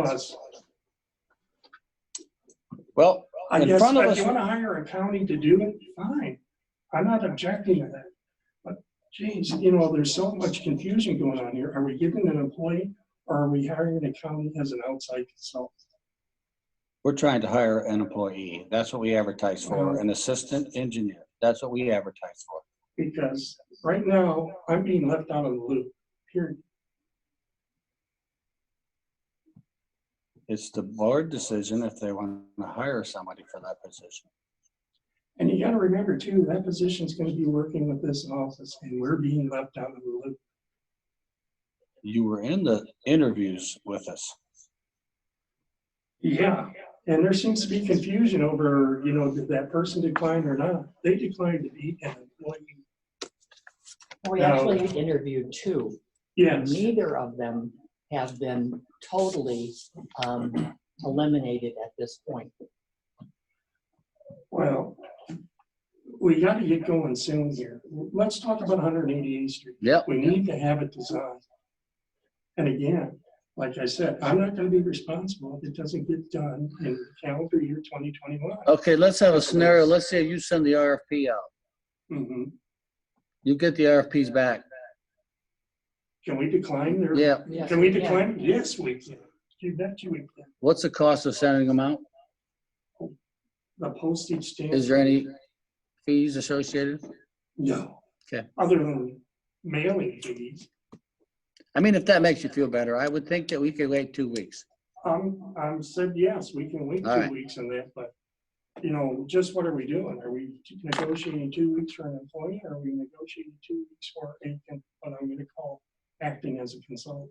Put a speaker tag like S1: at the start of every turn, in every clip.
S1: was.
S2: Well,
S1: I
S2: In
S1: guess
S2: front of
S1: if
S2: us-
S1: you want to hire a county to do it, fine. I'm not objecting to that. But geez, you know, there's so much confusion going on here. Are we giving an employee or are we hiring a county as an outside consultant?
S2: we're trying to hire an employee. That's what we advertise for, an assistant engineer. That's what we advertise for.
S1: Because right now, I'm being left out of the loop, period.
S2: It's the board decision if they want to hire somebody for that position.
S1: And you gotta remember too, that position's gonna be working with this office and we're being left out of the loop.
S2: You were in the interviews with us.
S1: Yeah. And there seems to be confusion over, you know, did that person decline or not? They declined to be an employee.
S3: We
S1: No.
S3: Oh, actually interviewed two. and
S1: Yes.
S3: Neither of them have been totally um, eliminated at this point.
S1: Well, we gotta get going soon here. Let's talk about 188th Street.
S2: Yep.
S1: We need to have it designed. And again, like I said, I'm not gonna be responsible if it doesn't get done in calendar year 2021.
S2: Okay, let's have a scenario. Let's say you send the RFP out.
S1: Mhm.
S2: You get the RFPs back.
S1: Can we decline their?
S2: Yeah.
S3: Yes,
S1: Can we
S3: yeah.
S1: decline? Yes, we can. You bet you we can.
S2: What's the cost of sending them out?
S1: The postage stamp.
S2: Is there any fees associated?
S1: No.
S2: Okay.
S1: Other than mailing fees,
S2: I mean, if that makes you feel better, I would think that we could wait two weeks.
S1: I'm, I'm Um, said, yes, we can wait
S2: All
S1: two
S2: right.
S1: weeks on that, but, you know, just what are we doing? Are we negotiating two weeks for an employee? or Are we negotiating two weeks for a, con- what I'm gonna call acting as a consultant?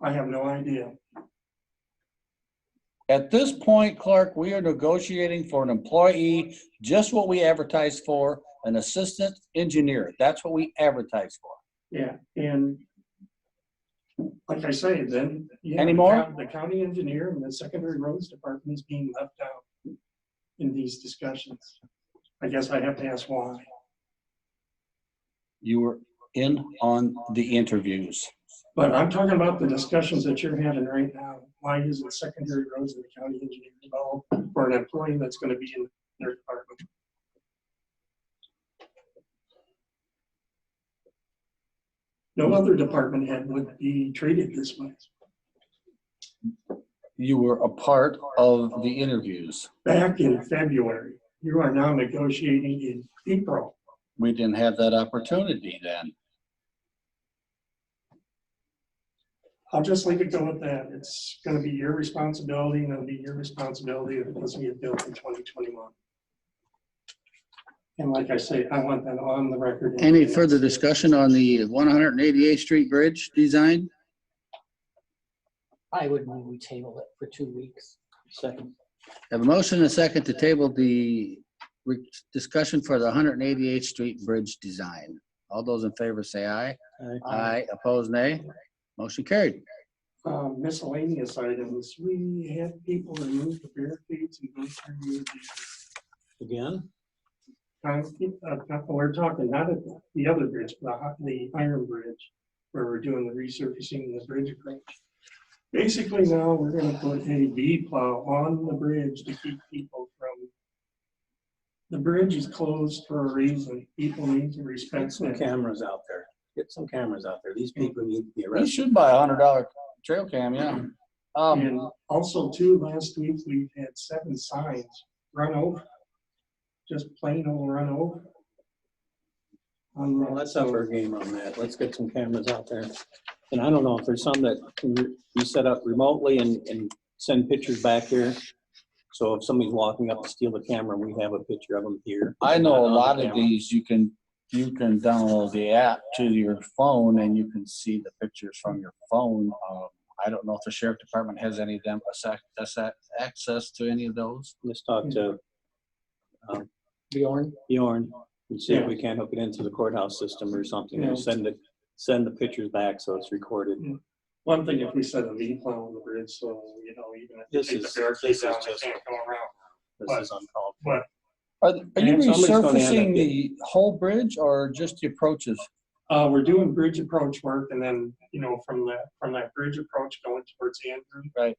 S1: I have no idea.
S2: At this point, Clark, we are negotiating for an employee, just what we advertised for, an assistant engineer. That's what we advertised for.
S1: Yeah, and like I say, then. yeah, the
S2: Anymore?
S1: coun- The county engineer and the secondary roads department is being left out in these discussions. I guess I have to ask why.
S2: You were in on the interviews.
S1: But I'm talking about the discussions that you're having right now. Why isn't secondary roads in the county engineer involved for an employee that's gonna be in their department? No other department head would be treated this way.
S2: You were a part of the interviews.
S1: Back in February, you are now negotiating in April.
S2: We didn't have that opportunity then.
S1: I'll just leave it go at that. It's gonna be your responsibility and it'll be your responsibility if it doesn't get built in twenty twenty-one. And like I say, I want that on the record.
S4: Any further discussion on the 188th Street Bridge design?
S3: I would move we table it for two weeks. Second.
S4: Have a motion and a second to table the re- discussion for the 188th Street Bridge design. All those in favor say aye.
S2: Uh,
S4: Aye, opposed nay. Motion carried.
S1: Um, Miscellaneous items, we had people remove the barricades and go through the.
S5: Again,
S1: concrete- uh, not- We're talking not at the other bridge, but the hi- the iron bridge, where we're doing the resurfacing of the bridge approach. Basically now, we're gonna put a V plow on the bridge to keep people from. The bridge is closed for a reason. People need to
S5: get
S1: respect
S5: some
S1: that.
S5: cameras out there. Get some cameras out there. These people need to be
S2: We
S5: arrested.
S2: should buy a hundred dollar trail cam, yeah.
S1: And
S2: Um,
S1: also too, last week, we had seven signs run over. Just plain old run over. On
S5: Well,
S1: that,
S5: Let's
S1: so-
S5: up our game on that. Let's get some cameras out there. And I don't know if there's some that can re- you set up remotely and, and send pictures back here. So if somebody's walking up to steal the camera, we have a picture of them here.
S2: I know a lot of
S5: Camera.
S2: these, you can, you can download the app to your phone and you can see the pictures from your phone. Um, I don't know if the sheriff department has any of them, access- access- access to any of those.
S5: Let's talk to
S3: Bjorn?
S5: Bjorn and see if we can hook it into the courthouse system or something.
S1: Yeah.
S5: and Send the, send the pictures back so it's recorded.
S1: One thing, if we set a V plow on the bridge, so, you know, even if. they
S5: This
S1: take the
S5: is-
S1: barricade
S5: this is
S1: down, they
S5: just-
S1: can't go around.
S5: This is uncalled.
S2: Are, are you
S5: And somebody's gonna end up
S2: resurfacing the
S5: getting-
S2: whole bridge or just the approaches?
S1: Uh, we're doing bridge approach work and then, you know, from that, from that bridge approach going towards Andrew.
S2: Right.